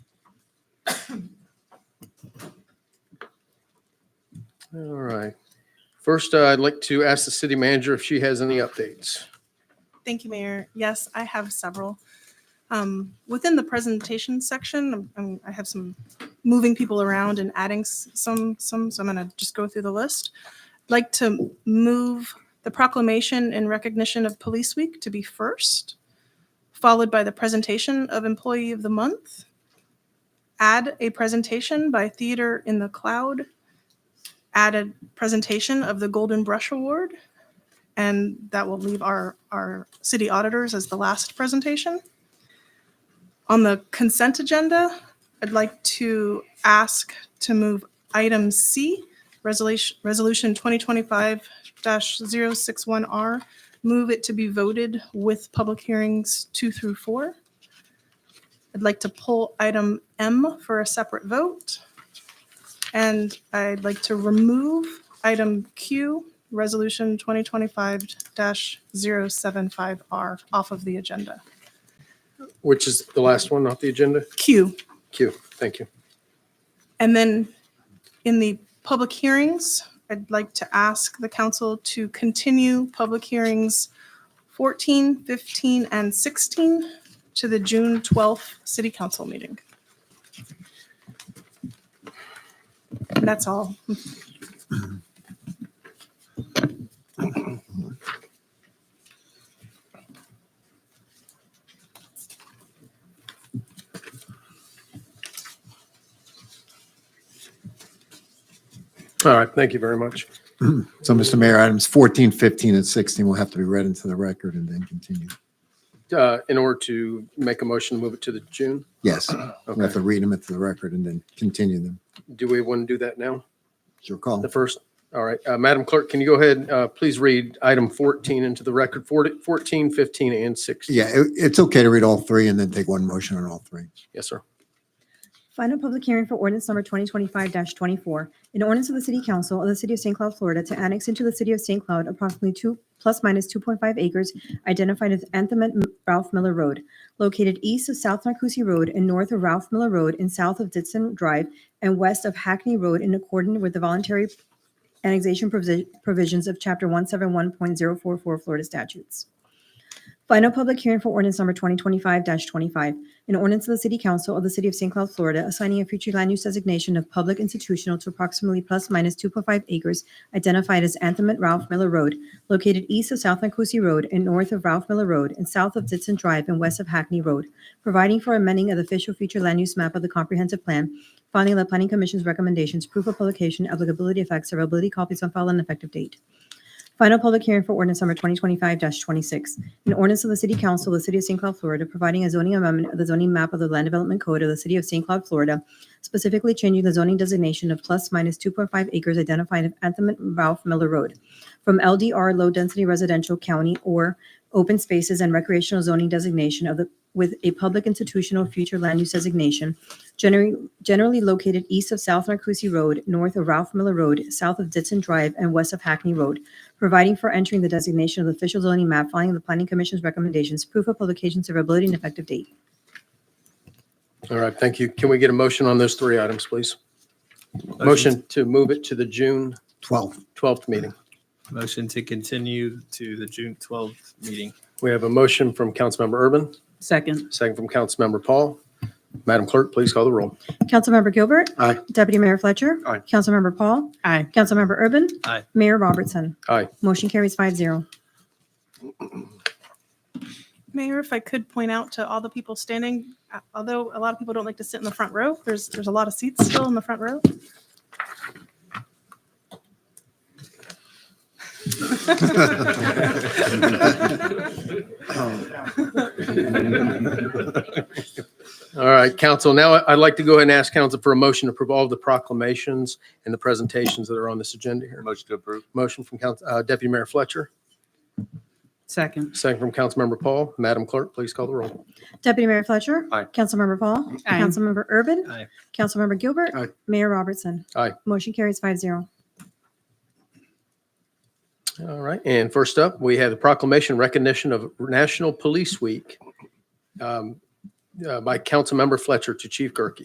All right. First, uh, I'd like to ask the city manager if she has any updates. Thank you, Mayor. Yes, I have several. Um, Within the presentation section, um, um, I have some moving people around and adding s- some, some, so I'm going to just go through the list. I'd Like to move the proclamation in recognition of Police Week to be first, followed by the presentation of Employee of the Month. Add a presentation by Theater in the Cloud. Add a presentation of the Golden Brush Award. And that will leave our, our city auditors as the last presentation. On the consent agenda, I'd like to ask to move item C, resolution, resolution 2025-061R, move it to be voted with public hearings two through four. I'd like to pull item M for a separate vote. And I'd like to remove item Q, Resolution 2025-075R off of the agenda. Which is the last one off the agenda? Q. Q, thank you. And then in the public hearings, I'd like to ask the council to continue public hearings 14, 15, and 16 to the June 12th city council meeting. And that's all. All right, thank you very much. So, Mr. Mayor, items 14, 15, and 16 will have to be read into the record and then continue. Uh, In order to make a motion, to move it to the June, Yes, we have to read them into the record and then continue them. do we want to do that now? It's your call. The first, all right, Uh, Madam Clerk, can you go ahead, uh, please read item 14 into the record, 40 14, 15, and 16? Yeah, it- it's okay to read all three and then take one motion on all three. Yes, sir. Final public hearing for ordinance number 2025-24, an ordinance of the City Council of the City of St. Cloud, Florida, to annex into the City of St. Cloud approximately two, plus minus 2.5 acres identified as Anthem and Ralph Miller Road, located east of South Narcousie Road and north of Ralph Miller Road and south of Ditson Drive and west of Hackney Road in accordance with the voluntary annexation provision- provisions of Chapter 171.044 Florida statutes. Final public hearing for ordinance number 2025-25, an ordinance of the City Council of the City of St. Cloud, Florida, assigning a future land use designation of public institutional to approximately plus minus 2.5 acres identified as Anthem at Ralph Miller Road, located east of South Nicosi Road and north of Ralph Miller Road and south of Ditson Drive and west of Hackney Road, providing for amending of the official future land use map of the comprehensive plan, finding the Planning Commission's recommendations, proof of publication, applicability effects, severability, copies on file, and effective date. Final public hearing for ordinance number 2025-26, an ordinance of the City Council of the City of St. Cloud, Florida, providing a zoning amendment of the zoning map of the Land Development Code of the City of St. Cloud, Florida, specifically changing the zoning designation of plus minus 2.5 acres identified as Anthem and Ralph Miller Road from LDR Low Density Residential County or Open Spaces and Recreational Zoning Designation of the, with a public institutional future land use designation generally, generally located east of South Narcousie Road, north of Ralph Miller Road, south of Ditson Drive, and west of Hackney Road, providing for entering the designation of the official zoning map, following the planning commission's recommendations, proof of publication, severability, and effective date. All right, thank you. Can we get a motion on those three items, please? Motion to move it to the June 12, 12th meeting. Motion to continue to the June twelfth meeting. We have a motion from Councilmember Urban, Second, second from Councilmember Paul. Madam Clerk, please call the roll. Councilmember Gilbert. Aye. Deputy Mayor Fletcher. Aye. Councilmember Paul. aye. Councilmember Urban. Aye. Mayor Robertson. Aye. Motion carries five zero. Mayor, if I could point out to all the people standing, uh, although a lot of people don't like to sit in the front row, there's, there's a lot of seats still in the front row. All right, council, now I'd like to go ahead and ask council for a motion to approve all of the proclamations and the presentations that are on this agenda here. Motion to approve. Motion from Council- uh, Deputy Mayor Fletcher, Second, second from Councilmember Paul. Madam Clerk, please call the roll. Deputy Mayor Fletcher. Aye. Councilmember Paul. Aye. Councilmember Urban. Aye. Councilmember Gilbert. Aye. Mayor Robertson. Aye. Motion carries five zero. All right, and first up, we have the proclamation recognition of National Police Week um, uh, by Councilmember Fletcher to Chief Gerke.